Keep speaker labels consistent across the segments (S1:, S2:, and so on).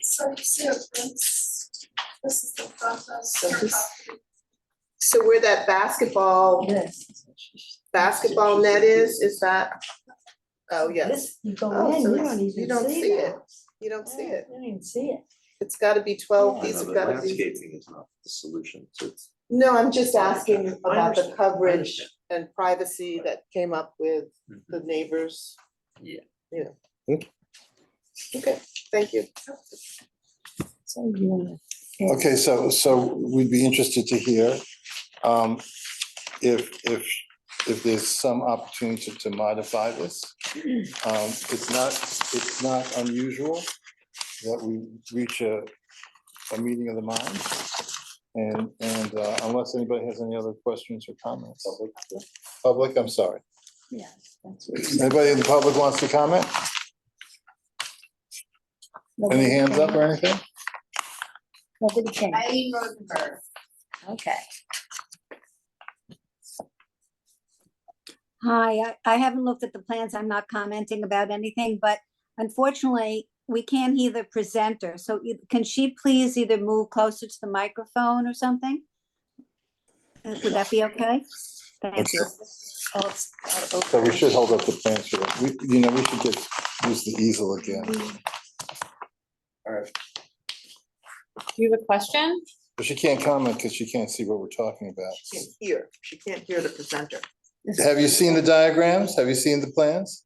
S1: So you see a glimpse, this is the front of
S2: So
S1: your
S2: this-
S1: property.
S2: So where that basketball,
S3: Oh, Yes.
S2: basketball net is, is that? Oh, yes,
S3: This, you go
S2: Oh,
S3: in,
S2: so
S3: you
S2: it's-
S3: don't
S2: you
S3: even see that.
S2: don't see it. you don't see it.
S3: You don't even see it.
S2: It's gotta be twelve,
S3: Yeah.
S2: these
S4: I know
S2: have
S4: that
S2: gotta be.
S4: Landscaping is not the solution, so it's.
S2: No, I'm just asking about the
S4: understand, I
S2: coverage
S4: understand. Mm-hmm.
S2: and privacy that came up with the neighbors.
S4: Yeah.
S2: Yeah. Okay, thank you.
S3: So you wanna.
S5: Okay, so, so we'd be interested to hear um, if, if, if there's some opportunity to modify this. Um, It's not, it's not unusual that we reach a, a meeting of the mind. And, and uh, unless anybody has any other questions or comments. Public, I'm sorry.
S3: Yeah, that's what-
S5: Anybody in the public wants to comment? Any
S3: Nobody
S5: hands up
S3: came.
S5: or anything?
S3: Nobody came,
S1: Eileen Rosenberg.
S3: okay. Hi, I, I haven't looked at the plans. I'm not commenting about anything, but unfortunately, we can't hear the presenter. So you- can she please either move closer to the microphone or something? Uh, Would that be okay? Thank you.
S5: So
S2: Oh,
S5: we should hold up the plans for that. We, you know, we should get, use the easel again.
S6: Do you have a question?
S5: But she can't comment because she can't see what we're talking about.
S2: She Can't hear, she can't hear the presenter.
S5: Have you seen the diagrams? Have you seen the plans?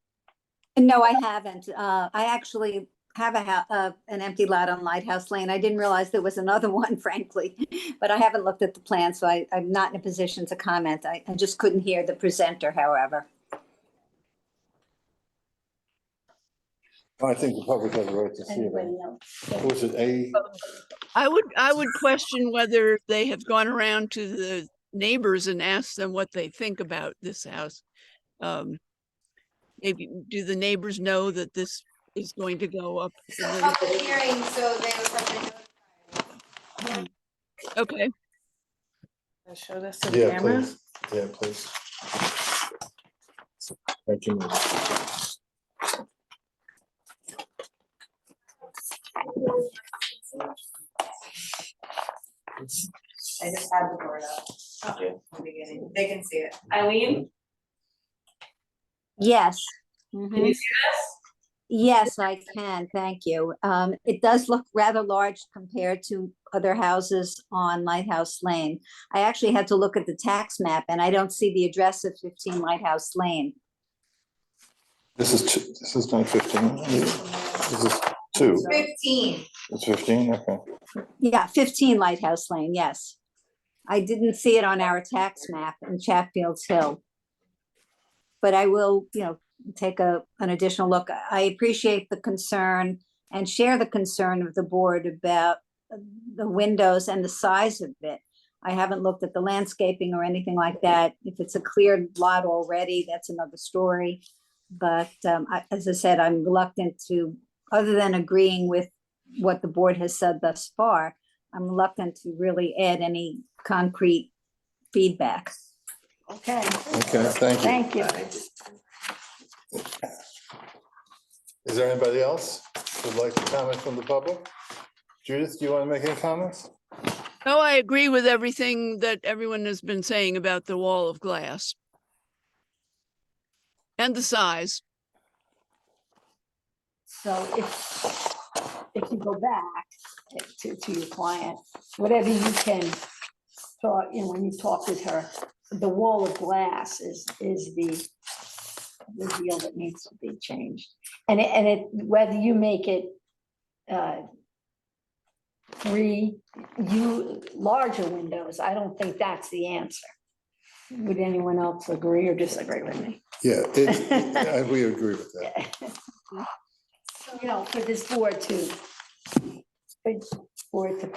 S3: No, I haven't. Uh, I actually have a ha- uh, an empty lot on Lighthouse Lane. I didn't realize there was another one frankly. But I haven't looked at the plan, so I, I'm not in a position to comment. I, I just couldn't hear the presenter, however.
S5: I think the public has a right to see
S3: Anybody
S5: them.
S3: else?
S5: Was it A?
S7: I would, I would question whether they have gone around to the neighbors and asked them what they think about this house. Um, Maybe, do the neighbors know that this is going to go up? in
S1: So
S7: the-
S1: public hearing, so they would have been.
S7: Hmm. Okay,
S6: Show this to the
S5: Yeah,
S6: camera.
S5: please. Yeah, please. Thank you. ma'am.
S8: I just had the board up from the beginning. They can see it. Eileen,
S3: Yes. Mhm.
S8: can you see this?
S3: Yes, I can, thank you. Um, it does look rather large compared to other houses on Lighthouse Lane. I actually had to look at the tax map and I don't see the address of fifteen Lighthouse Lane.
S5: This is two, this is not fifteen. This is two.
S8: Fifteen.
S5: It's fifteen, okay.
S3: Yeah, fifteen Lighthouse Lane, yes. I didn't see it on our tax map in Chatfield Hill. But I will, you know, take a, an additional look. I appreciate the concern and share the concern of the board about the windows and the size of it. I haven't looked at the landscaping or anything like that. If it's a cleared lot already, that's another story. But, um, I, as I said, I'm reluctant to, other than agreeing with what the board has said thus far, I'm reluctant to really add any concrete feedback.
S6: Okay,
S5: Okay, thank you.
S3: Thank you.
S5: Is there anybody else who'd like to comment from the public? Judith, do you want to make any comments?
S7: no, I agree with everything that everyone has been saying about the wall of glass. And the size.
S3: So if, if you go back to, to your client, whatever you can talk, you know, when you talk with her, the wall of glass is, is the, the deal that needs to be changed. And it, and it, whether you make it, uh, three, you, larger windows, I don't think that's the answer. Would anyone else agree or disagree with me?
S5: Yeah, it, I- we agree with that.
S3: you know, for this board to, for this board to,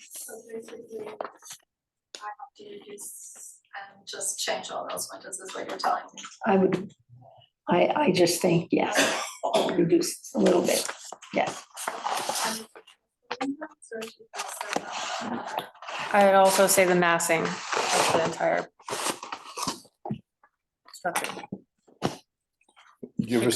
S1: So basically, I have to reduce and just change all those windows is what you're telling me.
S3: I would, I, I just think, yes, reduce a little bit, yes.
S1: And- So if you pass that on, uh,
S6: I would also say the massing of the entire structure.
S5: Give her